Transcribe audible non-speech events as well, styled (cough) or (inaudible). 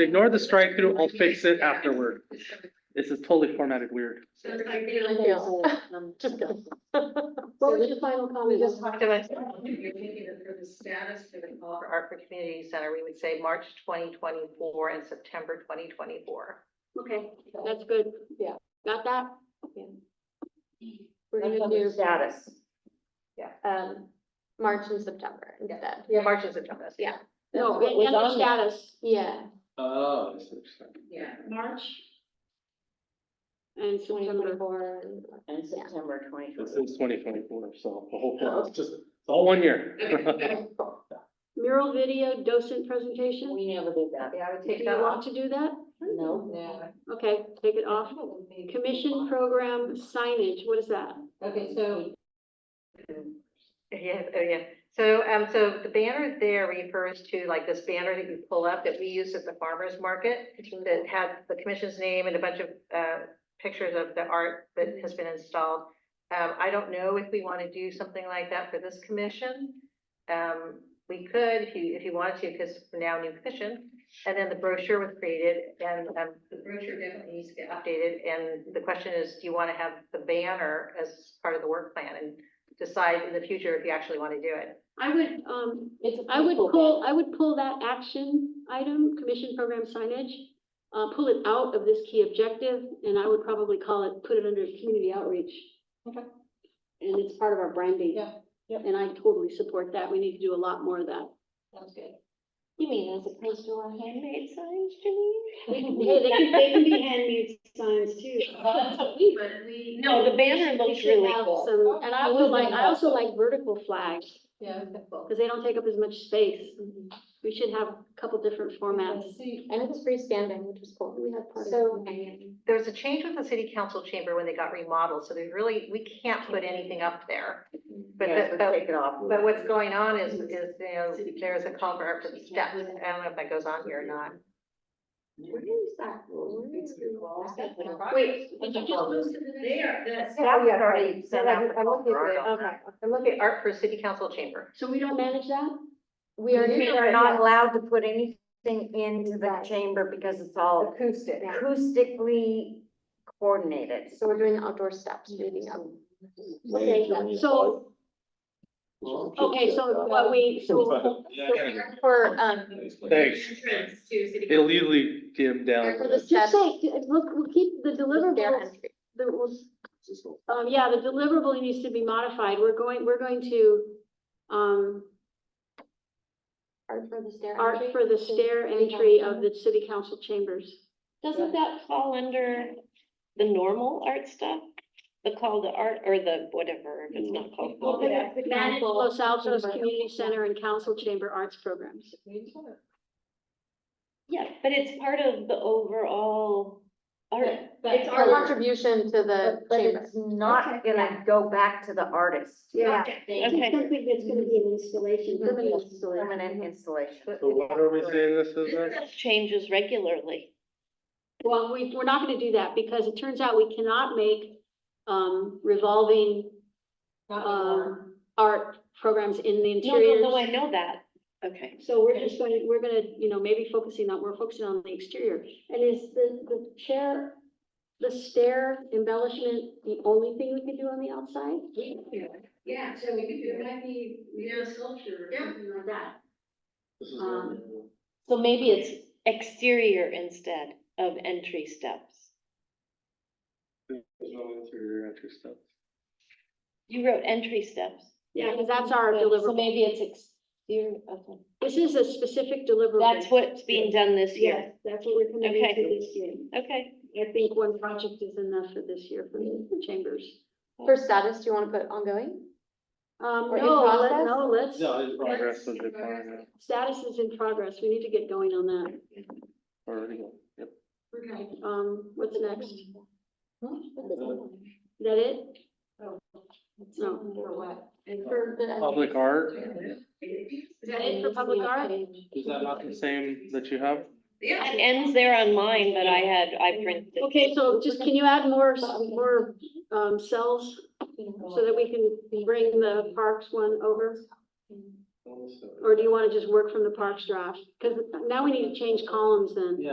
Ignore the strike through, I'll fix it afterward. This is totally formatted weird. So it's like the whole- Just go. What was your final comment? We just talked about. You're thinking that for the status for the call For Art for Community Center, we would say March twenty twenty-four and September twenty twenty-four. Okay, that's good. Yeah, got that? We're gonna That's do. under status. Um, March and September instead. Yeah. March and September. Yeah. No, No, it was under on there. status, yeah, Oh. Yeah. March. And twenty twenty-four. And September twenty This twenty. is twenty twenty-four, so the whole, it's just, it's all one (laughs) year. Mural video docent presentation. We never did that. Yeah, I would Do take you that want off. to do that? No. Okay, take it off. Commission program signage, what is that? Okay, so. Yes, oh, yeah. So, um, so the banner there refers to like this banner that you pull up that we use at the farmer's market. that had the commission's name and a bunch of uh pictures of the art that has been installed. Um, I don't know if we want to do something like that for this commission. Um, we could, if you, if you wanted to, because we're now a new commission. And then the brochure was created and um The brochure definitely needs to get up. updated. And the question is, do you want to have the banner as part of the work plan? And decide in the future if you actually want to do it. I would, um, It's a I would people pull, I would pull that action item, commission program signage, uh, pull it out of this key objective, and I would probably call it, put it under community outreach. Okay. And it's part of our branding. Yeah, yep. And I totally support that. We need to do a lot more of that. Sounds good. You mean as opposed to our handmade signs, Hey, Janine? they can, they can be handmade signs too. But we. (laughs) No, the banner looks Should really have cool. some- And I I also would like, like I that. also like vertical flags, Yeah. because they don't take up as much space. We should have a couple different formats. And it was freestanding, which was cool. We have part of So- it. There was a change with the city council chamber when they got remodeled, so there's really, we can't put anything up there. But Yes, that- we'll but- Take it off. But what's going on is, is, you know, there's a call for effort for the steps. I don't know if that goes on here or not. Where is that? Where is that? Wait, did you just Most of them there, that's. Oh, yeah, sorry. So I'm- I'm looking at it. Okay. And look at art for city council chamber. so we don't manage that? We are, We we are are not allowed to put anything into the chamber because it's all Acoustic. acoustically coordinated. So we're doing the outdoor steps, Mm-hmm. leading up. Okay, so, okay, so what we, so, For, um, Thanks. Entrance to city. It'll easily dim down. for the just steps, say, we'll, we'll keep the their deliverables, entry. the, we'll- um, yeah, the deliverable needs to be modified. We're going, we're going to, um, Art for the stair. art entry. for the stair entry of the city council chambers. Doesn't that fall under the normal art stuff? The call to art or the whatever, if it's not called. Well, whatever. Manage Los Altos Community Center and Council Chamber Arts Programs. Yeah, but it's part of the overall art. It's our contribution to the But but chamber. it's not gonna go back to the artist. Yeah. Okay. Something that's gonna be an installation, permanent installation. Permanent installation. So what are we saying this is then? Changes regularly. Well, we, we're not gonna do that because it turns out we cannot make, um, revolving, Uh, um, art programs in the No, no, interiors. no, I know that. Okay. So we're just going, we're gonna, you know, maybe focusing on, we're focusing on the exterior. And is the, the chair, the stair embellishment, the only thing we could do on the outside? Yeah, so we could do, it might be, you know, sculpture or something like that. Um, So maybe it's exterior instead of entry steps. There's no interior entry stuff. You wrote entry steps. Yeah, because that's our Good, So deliverable. maybe it's exterior, okay. This is a specific deliverable. That's what's being done this Yes, year. that's what we're committing to Okay. this year. Okay. I think one project is enough for this year for the chambers. For status, do you want to put ongoing? Um, Or in no, let- process? no, let's, it's progress and decline, status is in progress. We need to get going on that. uh, already, yep. Okay. Um, what's next? Uh, Is that it? No. For what? For the- Public art, Is Is that it for public art? is that not the same that you have? Yeah. It ends there on mine, but I had, I printed. Okay, so just, can you add more, s- more, um, cells so that we can bring the parks one over? Or do you wanna just work from the parks draft? Cause now we need to change columns then.